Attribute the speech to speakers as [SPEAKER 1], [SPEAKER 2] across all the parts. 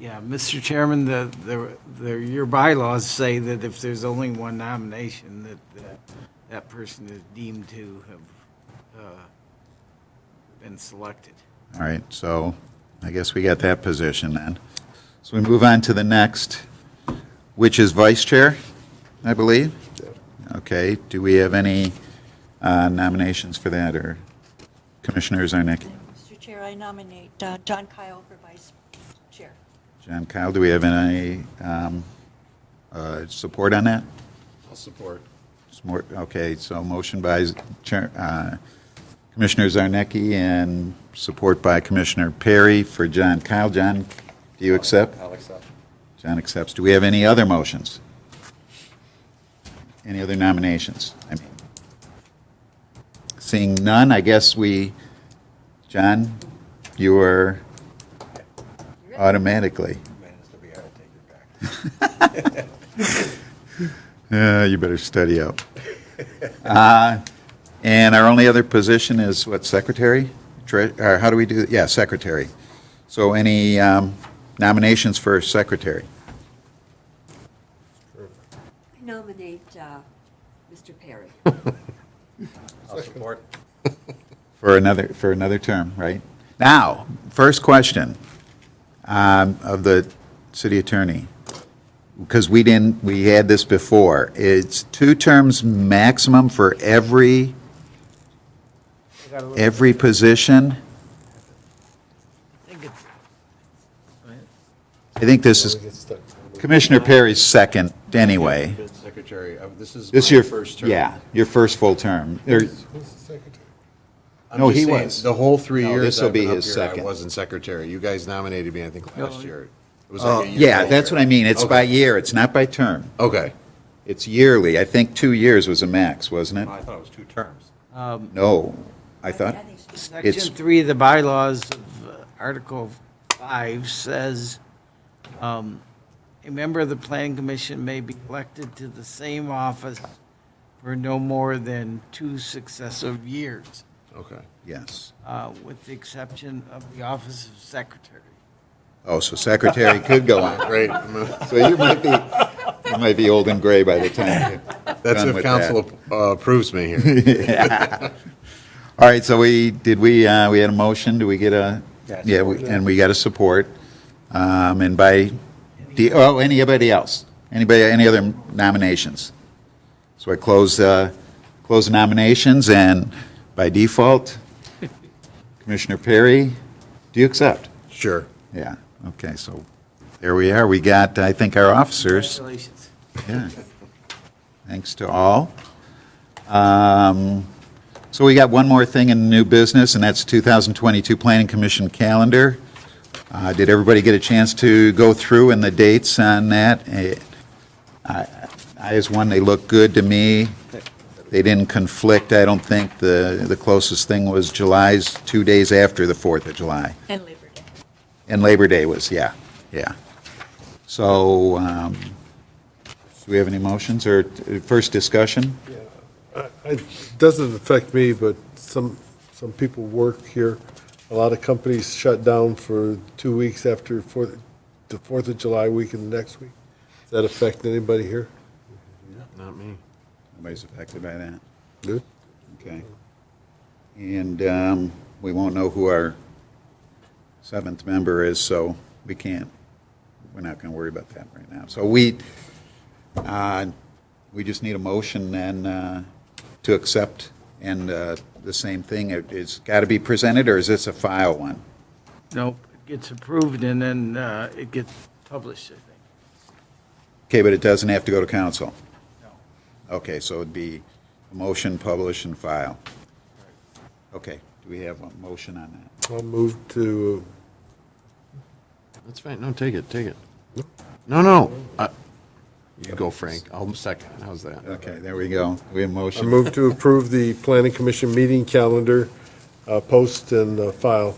[SPEAKER 1] Yeah, Mr. Chairman, the, the, the- your bylaws say that if there's only one nomination, that, uh, that person is deemed to have uh, been selected.
[SPEAKER 2] All right, so I guess we got that position then. So we move on to the next, which is vice chair, I believe? Okay, do we have any uh, nominations for that, or Commissioners Zarnicki?
[SPEAKER 3] Mr. Chair, I nominate uh, John Kyle for vice chair.
[SPEAKER 2] John Kyle, do we have any um, uh, support on that?
[SPEAKER 4] I'll support.
[SPEAKER 2] It's more- Okay, so motion by Chair- uh, Commissioner Zarnicki and support by Commissioner Perry for John Kyle. John, do you accept?
[SPEAKER 4] I'll accept.
[SPEAKER 2] John accepts. Do we have any other motions? Any other nominations? I mean, Seeing none, I guess we, John, you are automatically.
[SPEAKER 4] Man, it's gonna be hard to take it back.
[SPEAKER 2] Uh, you better study up. Uh, And our only other position is what, secretary? Tre- Or how do we do, yeah, secretary. So any um, nominations for secretary?
[SPEAKER 5] I nominate uh, Mr. Perry.
[SPEAKER 4] I'll support.
[SPEAKER 2] For another, for another term, right? Now, first question um, of the city attorney, because we didn't, we had this before. It's two terms maximum for every, every position?
[SPEAKER 1] I think it's
[SPEAKER 2] I think this is Commissioner Perry's second anyway.
[SPEAKER 4] Secretary, uh, this is.
[SPEAKER 2] This is
[SPEAKER 4] my
[SPEAKER 2] your,
[SPEAKER 4] First term.
[SPEAKER 2] yeah, your first full term. Or-
[SPEAKER 4] I'm
[SPEAKER 2] no,
[SPEAKER 4] just
[SPEAKER 2] he
[SPEAKER 4] saying,
[SPEAKER 2] was.
[SPEAKER 4] The whole three
[SPEAKER 2] No,
[SPEAKER 4] years.
[SPEAKER 2] this'll
[SPEAKER 4] I've
[SPEAKER 2] be
[SPEAKER 4] been up
[SPEAKER 2] his
[SPEAKER 4] here, I
[SPEAKER 2] second.
[SPEAKER 4] wasn't secretary. You guys nominated me, I think, last year. It was
[SPEAKER 2] oh,
[SPEAKER 4] like a year
[SPEAKER 2] Yeah,
[SPEAKER 4] later.
[SPEAKER 2] that's what I mean. It's by
[SPEAKER 4] Okay.
[SPEAKER 2] year, it's not by term.
[SPEAKER 4] Okay.
[SPEAKER 2] It's yearly. I think two years was a max, wasn't it?
[SPEAKER 4] thought it was two terms.
[SPEAKER 2] No, I thought,
[SPEAKER 5] I think it's-
[SPEAKER 2] It's-
[SPEAKER 1] Section three of the bylaws of uh, Article five says, um, a member of the planning commission may be elected to the same office for no more than two successive years,
[SPEAKER 4] Okay.
[SPEAKER 2] yes.
[SPEAKER 1] uh, with the exception of the office of secretary.
[SPEAKER 2] Oh, so secretary could go on.
[SPEAKER 4] Great.
[SPEAKER 2] So you might be, you might be old and gray by the time.
[SPEAKER 4] That's
[SPEAKER 2] Done
[SPEAKER 4] if
[SPEAKER 2] with
[SPEAKER 4] council uh, approves me here.
[SPEAKER 2] All right, so we, did we, uh, we had a motion, do we get a?
[SPEAKER 4] Yes.
[SPEAKER 2] Yeah, we- and we got a support. Um, and by, the- oh, anybody else? Anybody, any other nominations? So I close, uh, close nominations and by default, Commissioner Perry, do you accept?
[SPEAKER 4] Sure.
[SPEAKER 2] Yeah, okay, so there we are. We got, I think, our officers.
[SPEAKER 1] Congratulations.
[SPEAKER 2] Yeah. Thanks to all. Um, So we got one more thing in new business, and that's 2022 Planning Commission calendar. Uh, Did everybody get a chance to go through and the dates on that? Eh, I, I as one, they look good to me. They didn't conflict, I don't think. The, the closest thing was July's, two days after the 4th of July.
[SPEAKER 3] And Labor Day.
[SPEAKER 2] And Labor Day was, yeah, yeah. So, um, do we have any motions or uh, first discussion?
[SPEAKER 6] It doesn't affect me, but some, some people work here. A lot of companies shut down for two weeks after Fourth, the Fourth of July week and the next week. Does that affect anybody here?
[SPEAKER 4] Not me.
[SPEAKER 2] Nobody's affected by that.
[SPEAKER 6] No?
[SPEAKER 2] Okay. And um, we won't know who our seventh member is, so we can't, we're not going to worry about that right now. So we, uh, we just need a motion then uh, to accept, and uh, the same thing, it- it's got to be presented, or is this a file one?
[SPEAKER 1] Nope, it gets approved and then uh, it gets published, I think.
[SPEAKER 2] Okay, but it doesn't have to go to council?
[SPEAKER 1] No.
[SPEAKER 2] Okay, so it'd be motion, publish, and file. Okay, do we have a motion on that?
[SPEAKER 6] I'll move to,
[SPEAKER 4] That's fine. No, take it, take it. No, no. I- You go, Frank. I'll second. How's that?
[SPEAKER 2] Okay, there we go. We have
[SPEAKER 6] I
[SPEAKER 2] motion.
[SPEAKER 6] move to approve the planning commission meeting calendar, uh, post and uh, file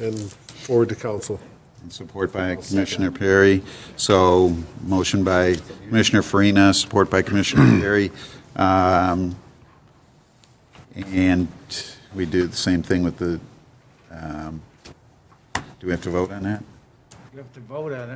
[SPEAKER 6] and forward to council.
[SPEAKER 2] and Support by Commissioner Perry. So motion by Commissioner Farina, support by Commissioner Perry. Um, And we do the same thing with the, um, do we have to vote on that?
[SPEAKER 1] You have to vote on it.